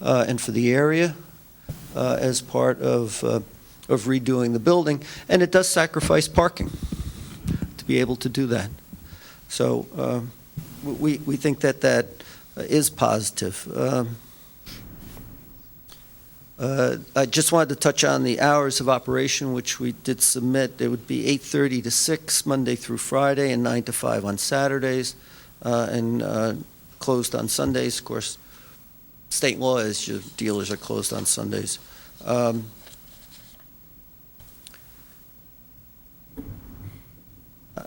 uh, and for the area uh, as part of uh, of redoing the building, and it does sacrifice parking to be able to do that. So um, we we think that that is positive. Um, uh, I just wanted to touch on the hours of operation, which we did submit. It would be 8:30 to 6 Monday through Friday, and 9 to 5 on Saturdays, uh, and uh, closed on Sundays. Of course, state law is your dealers are closed on Sundays. Um,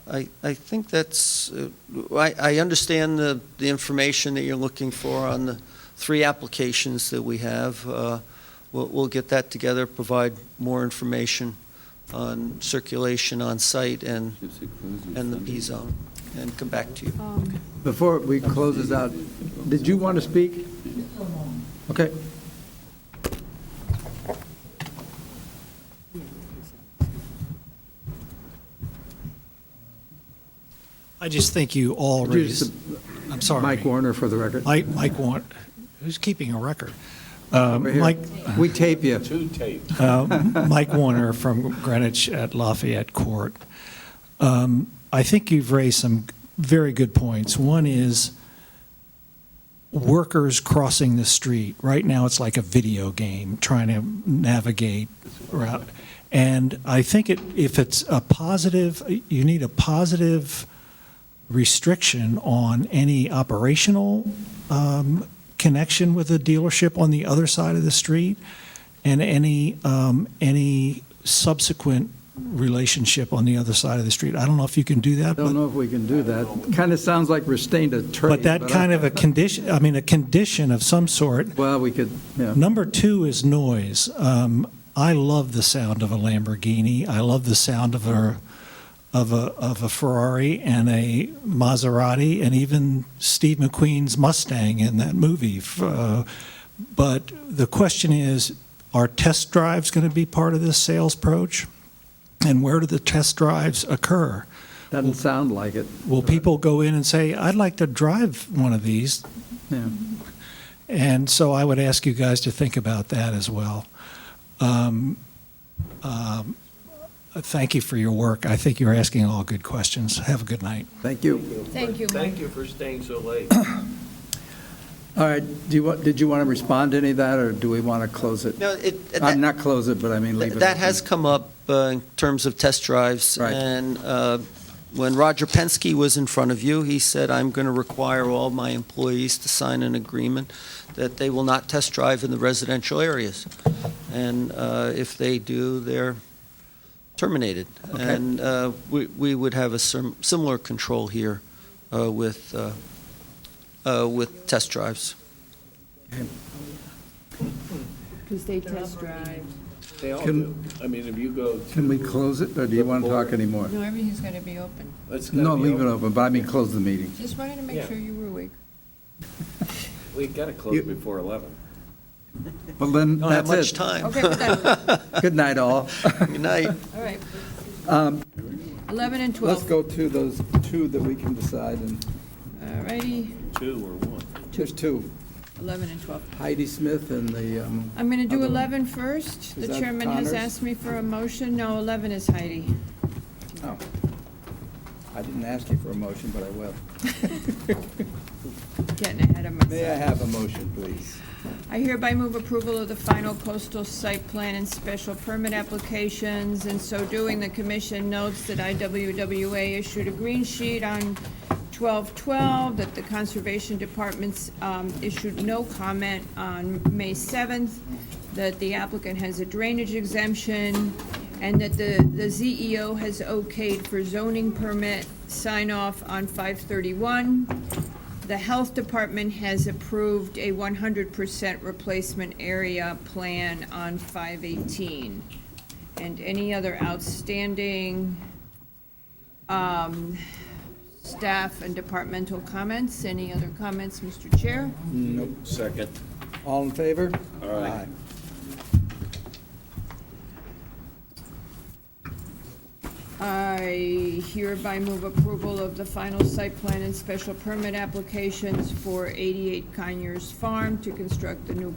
I, I think that's, uh, I, I understand the, the information that you're looking for on the three applications that we have. Uh, We'll, we'll get that together, provide more information on circulation on site and, and the P zone, and come back to you. Um, Before we close this out, did you want to speak? Okay. I just think you all raised, Just I'm sorry. Mike Warner for the record. Mike, Mike Warren, who's keeping a record? Uh, Over here. Mike, We tape you. uh, Mike Warner from Greenwich at Lafayette Court. Um, I think you've raised some very good points. One is workers crossing the street. Right now, it's like a video game, trying to navigate route. And I think it, if it's a positive, you need a positive restriction on any operational um, connection with a dealership on the other side of the street and any, um, any subsequent relationship on the other side of the street. I don't know if you can do that, Don't but, know if we can do that. Kind of sounds like we're staying to trade. but that I- kind of a condition, I mean, a condition of some sort Well, we could, yeah. Number two is noise. Um, I love the sound of a Lamborghini. I love the sound of a of a of a Ferrari and a Maserati, and even Steve McQueen's Mustang in that movie. F- Uh, but the question is, are test drives going to be part of this sales approach? And where do the test drives occur? Doesn't sound like it. Will people go in and say, "I'd like to drive one of these"? Yeah. And so I would ask you guys to think about that as well. Um, um, Thank you for your work. I think you're asking all good questions. Have a good night. Thank you. Thank you, Mike. Thank you for staying so late. All right, do you, want? did you want to respond to any of that, or do we want to close it? No, it, Uh, that, Not close it, but I mean, leave it. that open. has come up uh, in terms of test drives. Right. And uh, when Roger Penske was in front of you, he said, I'm going to require all my employees to sign an agreement that they will not test drive in the residential areas. And uh, if they do, they're terminated. Okay. And uh, we we would have a sim- similar control here uh, with, uh, uh, with test drives. Because they test drive. They all Can- do. I mean, if you go to. Can we close it, or do you want to talk anymore? No, everything's going to be open. It's gonna No, be leave it open. open, but I mean, close the meeting. Just wanted to make Yeah. sure you were awake. We gotta You- close before 11. Well, then, Don't have much that's it. time. Okay, we're done. Good night, all. Good night. All right, Um, 11 and Let's 12. go to those two that we can decide, and All righty, Two or one. there's two, 11 and 12. Heidi Smith and the, um, I'm going to do Other- 11 first. Is The that chairman has Connors? asked me for a motion. No, 11 is Heidi. oh, I didn't ask you for a motion, but I will. Getting ahead of May I myself. have a motion, please? I hereby move approval of the final coastal site plan and special permit applications. In so doing, the commission notes that IWWA issued a green sheet on 12/12, that the Conservation Department's um, issued no comment on May 7th, that the applicant has a drainage exemption, and that the the ZEO has okayed for zoning permit sign-off on 531. The Health Department has approved a 100% replacement area plan on 518. And any other outstanding um, staff and departmental comments? Any other comments, Mr. Chair? Second. All in favor? Aye. I hereby move approval of the final site plan and special permit applications for 88 Conyers Farm to construct the new